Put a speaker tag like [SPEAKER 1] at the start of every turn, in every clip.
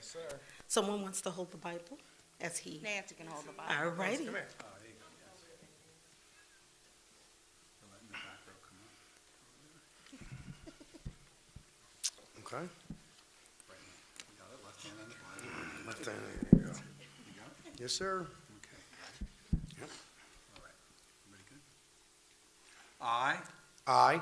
[SPEAKER 1] sir.
[SPEAKER 2] Someone wants to hold the Bible as he.
[SPEAKER 3] Nancy can hold the Bible.
[SPEAKER 2] All righty.
[SPEAKER 1] Come here.
[SPEAKER 4] Oh, there you go, yes. They're letting the back row come up
[SPEAKER 5] Okay.
[SPEAKER 4] right now. You got it, left hand on the Bible.
[SPEAKER 5] Left hand, there you go.
[SPEAKER 4] You got it?
[SPEAKER 5] Yes, sir.
[SPEAKER 4] Okay.
[SPEAKER 5] Yep.
[SPEAKER 4] All right. Everybody good? I,
[SPEAKER 5] I,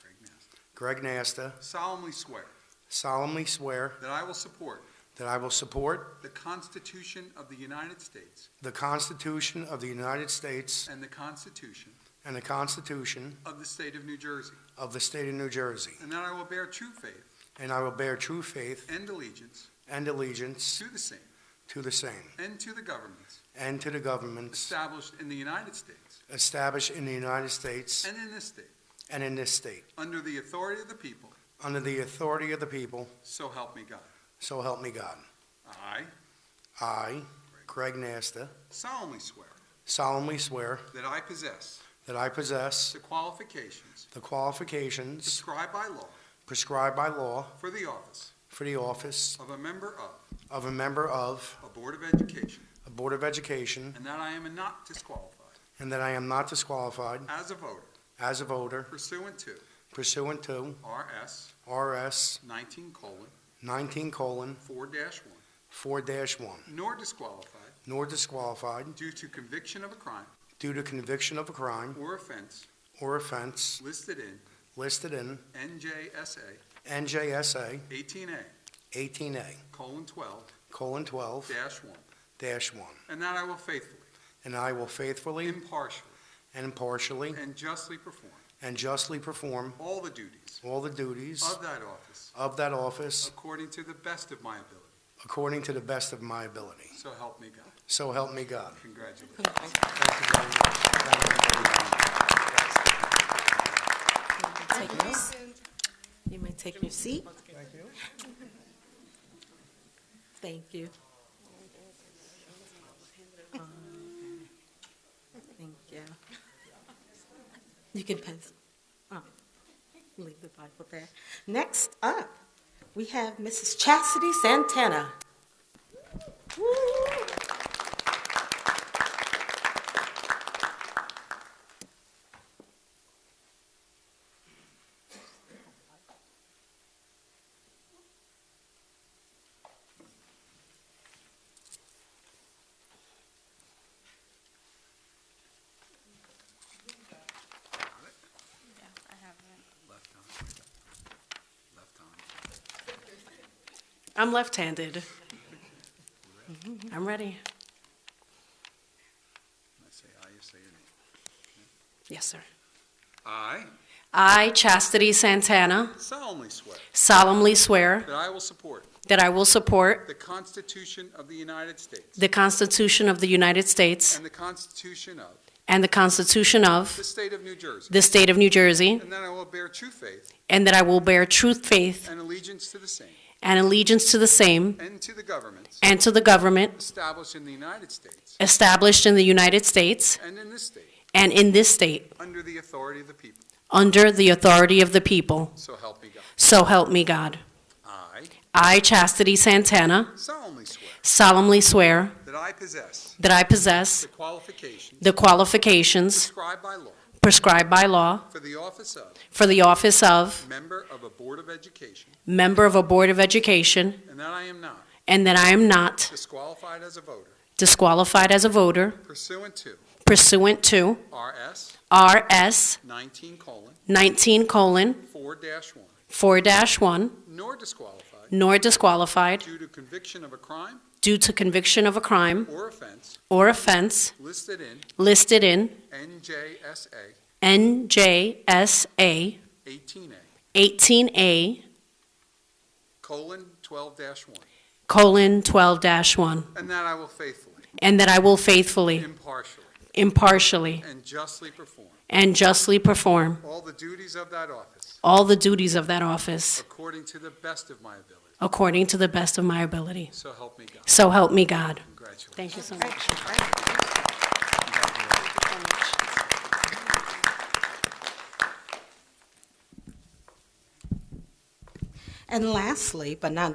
[SPEAKER 4] Craig Master,
[SPEAKER 5] Greg Nasta,
[SPEAKER 4] solemnly swear
[SPEAKER 5] solemnly swear
[SPEAKER 4] that I will support
[SPEAKER 5] that I will support
[SPEAKER 4] the Constitution of the United States
[SPEAKER 5] the Constitution of the United States
[SPEAKER 4] and the Constitution
[SPEAKER 5] and the Constitution
[SPEAKER 4] of the State of New Jersey,
[SPEAKER 5] of the State of New Jersey,
[SPEAKER 4] and that I will bear true faith
[SPEAKER 5] and I will bear true faith
[SPEAKER 4] and allegiance
[SPEAKER 5] and allegiance
[SPEAKER 4] to the same
[SPEAKER 5] to the same
[SPEAKER 4] and to the governments
[SPEAKER 5] and to the governments
[SPEAKER 4] established in the United States
[SPEAKER 5] established in the United States
[SPEAKER 4] and in this state,
[SPEAKER 5] and in this state,
[SPEAKER 4] under the authority of the people,
[SPEAKER 5] under the authority of the people,
[SPEAKER 4] so help me God.
[SPEAKER 5] so help me God.
[SPEAKER 4] I
[SPEAKER 5] I, Greg Nasta,
[SPEAKER 4] solemnly swear
[SPEAKER 5] solemnly swear
[SPEAKER 4] that I possess
[SPEAKER 5] that I possess
[SPEAKER 4] the qualifications
[SPEAKER 5] the qualifications
[SPEAKER 4] prescribed by law
[SPEAKER 5] prescribed by law
[SPEAKER 4] for the office
[SPEAKER 5] for the office
[SPEAKER 4] of a member of
[SPEAKER 5] of a member of
[SPEAKER 4] a Board of Education,
[SPEAKER 5] a Board of Education
[SPEAKER 4] and that I am not disqualified
[SPEAKER 5] and that I am not disqualified
[SPEAKER 4] as a voter
[SPEAKER 5] as a voter
[SPEAKER 4] pursuant to
[SPEAKER 5] pursuant to
[SPEAKER 4] RS
[SPEAKER 5] RS
[SPEAKER 4] 19 colon
[SPEAKER 5] 19 colon
[SPEAKER 4] 4 dash 1,
[SPEAKER 5] 4 1,
[SPEAKER 4] nor disqualified
[SPEAKER 5] nor disqualified
[SPEAKER 4] due to conviction of a crime
[SPEAKER 5] due to conviction of a crime
[SPEAKER 4] or offense
[SPEAKER 5] or offense
[SPEAKER 4] listed in
[SPEAKER 5] listed in
[SPEAKER 4] NJSA
[SPEAKER 5] NJSA
[SPEAKER 4] 18A
[SPEAKER 5] 18A
[SPEAKER 4] colon 12
[SPEAKER 5] colon 12
[SPEAKER 4] dash 1,
[SPEAKER 5] dash 1,
[SPEAKER 4] and that I will faithfully,
[SPEAKER 5] and I will faithfully
[SPEAKER 4] impartially,
[SPEAKER 5] and impartially
[SPEAKER 4] and justly perform
[SPEAKER 5] and justly perform
[SPEAKER 4] all the duties
[SPEAKER 5] all the duties
[SPEAKER 4] of that office
[SPEAKER 5] of that office
[SPEAKER 4] according to the best of my ability,
[SPEAKER 5] according to the best of my ability.
[SPEAKER 4] so help me God.
[SPEAKER 5] So help me God.
[SPEAKER 4] Congratulations.
[SPEAKER 5] Thank you very much.
[SPEAKER 2] Take your- You may take your seat.
[SPEAKER 1] Thank you.
[SPEAKER 2] Thank you. Um, Thank you. You can pass, oh, leave the Bible there. Next up, we have Mrs. Chastity Santana. Woo!
[SPEAKER 3] Yeah, I have it.
[SPEAKER 4] Left arm. Left arm.
[SPEAKER 6] I'm left-handed. I'm ready.
[SPEAKER 4] When I say aye, you say your name.
[SPEAKER 6] Yes, sir.
[SPEAKER 4] I
[SPEAKER 6] I, Chastity Santana,
[SPEAKER 4] solemnly swear
[SPEAKER 6] solemnly swear
[SPEAKER 4] that I will support
[SPEAKER 6] that I will support
[SPEAKER 4] the Constitution of the United States
[SPEAKER 6] the Constitution of the United States
[SPEAKER 4] and the Constitution of
[SPEAKER 6] and the Constitution of
[SPEAKER 4] the State of New Jersey,
[SPEAKER 6] the State of New Jersey,
[SPEAKER 4] and that I will bear true faith
[SPEAKER 6] and that I will bear true faith
[SPEAKER 4] and allegiance to the same
[SPEAKER 6] and allegiance to the same
[SPEAKER 4] and to the governments
[SPEAKER 6] and to the government
[SPEAKER 4] established in the United States
[SPEAKER 6] established in the United States
[SPEAKER 4] and in this state
[SPEAKER 6] and in this state
[SPEAKER 4] under the authority of the people.
[SPEAKER 6] under the authority of the people.
[SPEAKER 4] So help me God.
[SPEAKER 6] So help me God.
[SPEAKER 4] I
[SPEAKER 6] I, Chastity Santana,
[SPEAKER 4] solemnly swear
[SPEAKER 6] solemnly swear
[SPEAKER 4] that I possess
[SPEAKER 6] that I possess
[SPEAKER 4] the qualifications
[SPEAKER 6] the qualifications
[SPEAKER 4] prescribed by law
[SPEAKER 6] prescribed by law
[SPEAKER 4] for the office of
[SPEAKER 6] for the office of
[SPEAKER 4] member of a Board of Education
[SPEAKER 6] member of a Board of Education,
[SPEAKER 4] and that I am not
[SPEAKER 6] and that I am not
[SPEAKER 4] disqualified as a voter
[SPEAKER 6] disqualified as a voter
[SPEAKER 4] pursuant to
[SPEAKER 6] pursuant to
[SPEAKER 4] RS
[SPEAKER 6] RS
[SPEAKER 4] 19 4
[SPEAKER 6] 19
[SPEAKER 4] 1,
[SPEAKER 6] 4 1,
[SPEAKER 4] nor disqualified
[SPEAKER 6] nor disqualified
[SPEAKER 4] due to conviction of a crime
[SPEAKER 6] due to conviction of a crime
[SPEAKER 4] or offense
[SPEAKER 6] or offense
[SPEAKER 4] listed in
[SPEAKER 6] listed in
[SPEAKER 4] NJSA
[SPEAKER 6] NJSA
[SPEAKER 4] 18A
[SPEAKER 6] 18A
[SPEAKER 4] colon 12 1,
[SPEAKER 6] colon 12 1,
[SPEAKER 4] and that I will faithfully,
[SPEAKER 6] and that I will faithfully,
[SPEAKER 4] impartially,
[SPEAKER 6] impartially,
[SPEAKER 4] and justly perform
[SPEAKER 6] and justly perform
[SPEAKER 4] all the duties of that office
[SPEAKER 6] all the duties of that office
[SPEAKER 4] according to the best of my ability.
[SPEAKER 6] according to the best of my ability.
[SPEAKER 4] So help me God.
[SPEAKER 6] So help me God.
[SPEAKER 4] Congratulations.
[SPEAKER 6] Thank you so much.
[SPEAKER 2] And lastly, but not